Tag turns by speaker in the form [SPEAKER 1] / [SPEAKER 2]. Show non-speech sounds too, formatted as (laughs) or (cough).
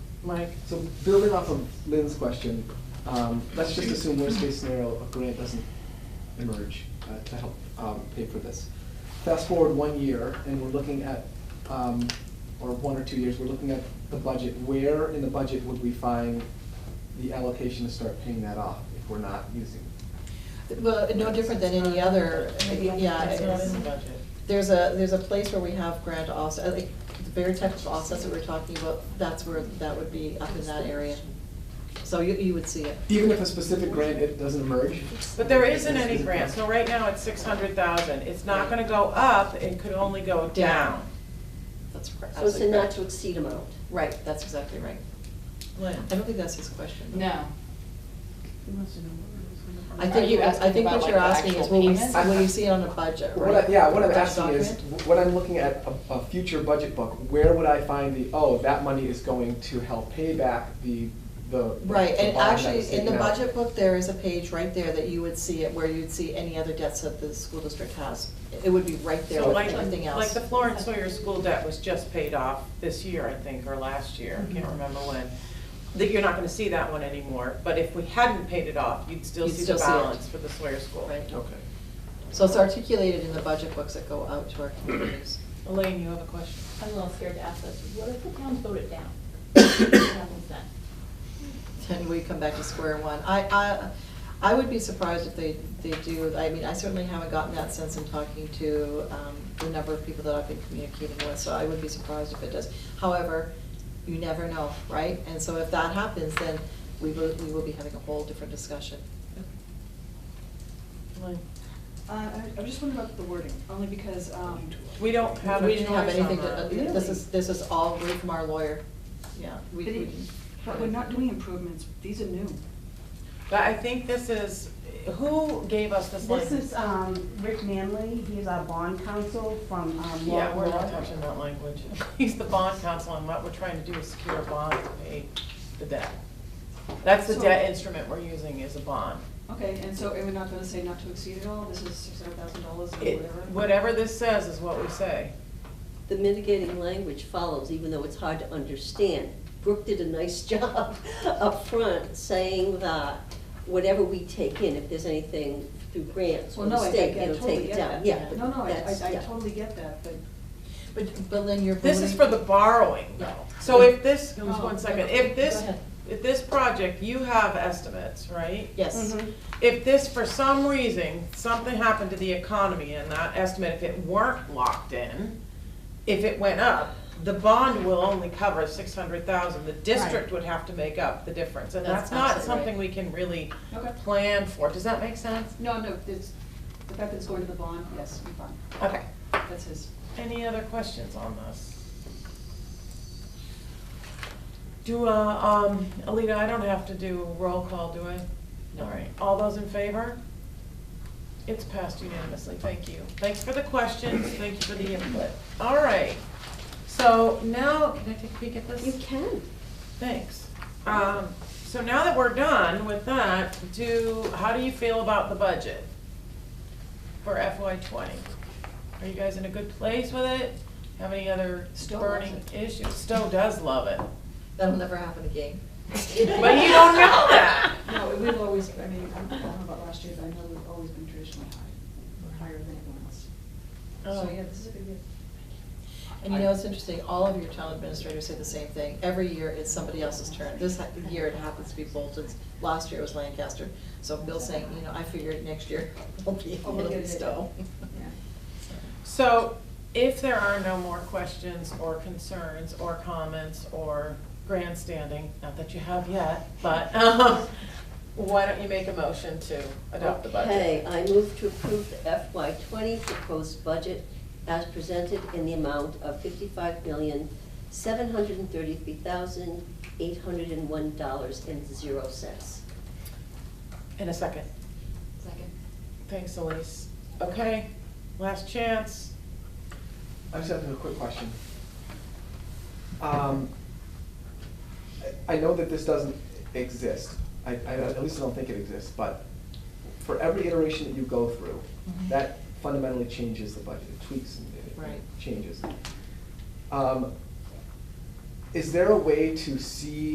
[SPEAKER 1] Mike?
[SPEAKER 2] So building off of Lynn's question, um, let's just assume worst case scenario, a grant doesn't emerge uh, to help um, pay for this. Fast forward one year, and we're looking at, um, or one or two years, we're looking at the budget. Where in the budget would we find the allocation to start paying that off if we're not using?
[SPEAKER 3] Well, no different than any other, yeah.
[SPEAKER 1] That's not in the
[SPEAKER 3] it's-
[SPEAKER 1] budget.
[SPEAKER 3] There's a, there's a place where we have grant offset, like, the very type of offsets that we're talking about, that's where, that would be up in that area. So you, you would see it.
[SPEAKER 2] Even if a specific grant, it doesn't emerge?
[SPEAKER 1] But there isn't any
[SPEAKER 2] This
[SPEAKER 1] grant, so right now it's six hundred thousand, it's not gonna go up, it could only go down.
[SPEAKER 3] That's correct.
[SPEAKER 4] So it's a not to exceed amount.
[SPEAKER 3] Right, that's exactly right.
[SPEAKER 1] Lynn?
[SPEAKER 3] I don't think that's his question. though.
[SPEAKER 5] No.
[SPEAKER 3] I
[SPEAKER 5] Are
[SPEAKER 3] think,
[SPEAKER 5] you
[SPEAKER 3] you- I
[SPEAKER 5] asking
[SPEAKER 3] think
[SPEAKER 5] about,
[SPEAKER 3] what you're
[SPEAKER 5] like, the
[SPEAKER 3] asking is,
[SPEAKER 5] actual
[SPEAKER 3] will we,
[SPEAKER 5] payments?
[SPEAKER 3] will you see it on a budget,
[SPEAKER 2] What
[SPEAKER 3] right?
[SPEAKER 2] I, yeah, what I'm
[SPEAKER 3] That
[SPEAKER 2] asking is,
[SPEAKER 3] document?
[SPEAKER 2] when I'm looking at a, a future budget book, where would I find the, oh, that money is going to help pay back the, the.
[SPEAKER 3] Right,
[SPEAKER 2] the
[SPEAKER 3] and
[SPEAKER 2] bond that was
[SPEAKER 3] actually, in the
[SPEAKER 2] taken out?
[SPEAKER 3] budget book, there is a page right there that you would see it, where you'd see any other debts that the school district has. It would be right there
[SPEAKER 1] So
[SPEAKER 3] with
[SPEAKER 1] like,
[SPEAKER 3] everything
[SPEAKER 1] like
[SPEAKER 3] else.
[SPEAKER 1] the Florence Sawyer school debt was just paid off this year, I think, or last year, I can't
[SPEAKER 3] Mm-hmm.
[SPEAKER 1] remember when. That you're not gonna see that one anymore, but if we hadn't paid it off, you'd still
[SPEAKER 3] You'd
[SPEAKER 1] see
[SPEAKER 3] still
[SPEAKER 1] the
[SPEAKER 3] see it.
[SPEAKER 1] balance for the Sawyer school.
[SPEAKER 3] Right.
[SPEAKER 2] Okay.
[SPEAKER 3] So it's articulated in the budget books that go out to our communities.
[SPEAKER 1] Elaine, you have a question?
[SPEAKER 5] I'm a little scared to ask this, what if the towns vote it down? What happens then?
[SPEAKER 3] Then we come back to square one. I, I, I would be surprised if they, they do, I mean, I certainly haven't gotten that sense in talking to um, the number of people that I've been communicating with, so I would be surprised if it does. However, you never know, right? And so if that happens, then we will, we will be having a whole different discussion.
[SPEAKER 1] Elaine?
[SPEAKER 6] Uh, I- I'm just wondering about the wording, only because, um,
[SPEAKER 1] We don't have a
[SPEAKER 3] We didn't have
[SPEAKER 1] choice on
[SPEAKER 3] anything
[SPEAKER 1] that.
[SPEAKER 3] to, this is, this is all way from our lawyer, yeah. we-
[SPEAKER 6] but it-
[SPEAKER 3] we-
[SPEAKER 6] but we're not doing improvements, these are new.
[SPEAKER 1] But I think this is, who gave us this
[SPEAKER 7] This
[SPEAKER 1] language?
[SPEAKER 7] is um, Rick Manley, he's our bond counsel from um, Law
[SPEAKER 1] Yeah, we're not
[SPEAKER 7] Law.
[SPEAKER 1] touching that language. (laughs) He's the bond counsel, and what we're trying to do is secure a bond to pay the debt. That's the
[SPEAKER 6] So-
[SPEAKER 1] debt instrument we're using is a bond.
[SPEAKER 6] Okay, and so, and we're not gonna say not to exceed at all, this is six hundred thousand dollars or
[SPEAKER 1] It-
[SPEAKER 6] whatever?
[SPEAKER 1] Whatever this says is what we say.
[SPEAKER 4] The mitigating language follows, even though it's hard to understand. Brooke did a nice (laughs) job up front saying that whatever we take in, if there's anything through grants or
[SPEAKER 6] Well,
[SPEAKER 4] the
[SPEAKER 6] no, I I
[SPEAKER 4] state,
[SPEAKER 6] I
[SPEAKER 4] it'll
[SPEAKER 6] totally
[SPEAKER 4] take it
[SPEAKER 6] get
[SPEAKER 4] down,
[SPEAKER 6] that.
[SPEAKER 4] yeah. but
[SPEAKER 6] No, no, I-
[SPEAKER 4] that's-
[SPEAKER 6] I, I
[SPEAKER 4] yeah.
[SPEAKER 6] totally get that, but
[SPEAKER 3] But, but Lynn, you're.
[SPEAKER 1] This is
[SPEAKER 3] voting-
[SPEAKER 1] for the borrowing,
[SPEAKER 3] Yeah.
[SPEAKER 1] though. So if this, just
[SPEAKER 6] Oh,
[SPEAKER 1] one second, if this,
[SPEAKER 3] Go ahead.
[SPEAKER 1] if this project, you have estimates, right?
[SPEAKER 3] Yes,
[SPEAKER 6] Mm-hmm.
[SPEAKER 7] Mm-hmm.
[SPEAKER 1] If this, for some reason, something happened to the economy and that estimate, if it weren't locked in, if it went up, the bond will only cover six hundred thousand, the district would have to make up the difference, and that's
[SPEAKER 3] That's
[SPEAKER 1] not
[SPEAKER 3] absolutely right.
[SPEAKER 1] something we can really
[SPEAKER 6] Okay.
[SPEAKER 1] plan for, does that make sense?
[SPEAKER 6] No, no, it's, the fact that it's going to the bond, yes, we're fine,
[SPEAKER 1] Okay,
[SPEAKER 6] that's his.
[SPEAKER 1] any other questions on this? Do, uh, um, Alita, I don't have to do a roll call, do I? All right, all those in favor? It's passed unanimously, thank you. Thanks for the questions, thank you for the input. All right, so now, can I take a peek at this?
[SPEAKER 4] You can.
[SPEAKER 1] Thanks. Um, so now that we're done with that, do, how do you feel about the budget for FY twenty? Are you guys in a good place with it? Have any other
[SPEAKER 6] Stowe loves
[SPEAKER 1] burning issues? Stowe does love it,
[SPEAKER 3] that'll never happen again.
[SPEAKER 1] but you don't know that.
[SPEAKER 6] No, we've always, I mean, I don't know about last year, but I know we've always been traditionally high, higher than anyone else.
[SPEAKER 1] Oh,
[SPEAKER 6] So, yeah, this is a good year.
[SPEAKER 3] And you know, it's interesting, all of your town administrators say the same thing. Every year, it's somebody else's turn. This ha- year, it happens to be Bolton's. Last year, it was Lancaster. So Bill's saying, you know, I figured next year, (laughs) it'll be,
[SPEAKER 6] Oh, we'll
[SPEAKER 3] it'll
[SPEAKER 6] get
[SPEAKER 3] be
[SPEAKER 6] it.
[SPEAKER 3] Stowe.
[SPEAKER 6] Yeah.
[SPEAKER 1] So, if there are no more questions or concerns or comments or grandstanding, not that you have yet, but, um, why don't you make a motion to adopt the budget?
[SPEAKER 4] Okay, I move to approve the FY twenty proposed budget as presented in the amount of fifty-five million, seven hundred and thirty-three thousand, eight hundred and one dollars and zero cents.
[SPEAKER 1] In a second.
[SPEAKER 5] Second.
[SPEAKER 1] Thanks, Elise. Okay, last chance.
[SPEAKER 2] I just have a quick question. Um, I I know that this doesn't exist, I, I at least I don't think it exists, but for every iteration that you go through,
[SPEAKER 3] Mhm.
[SPEAKER 2] that fundamentally changes the budget, it tweaks and it-
[SPEAKER 3] Right.
[SPEAKER 2] it changes. Um, Is there a way to see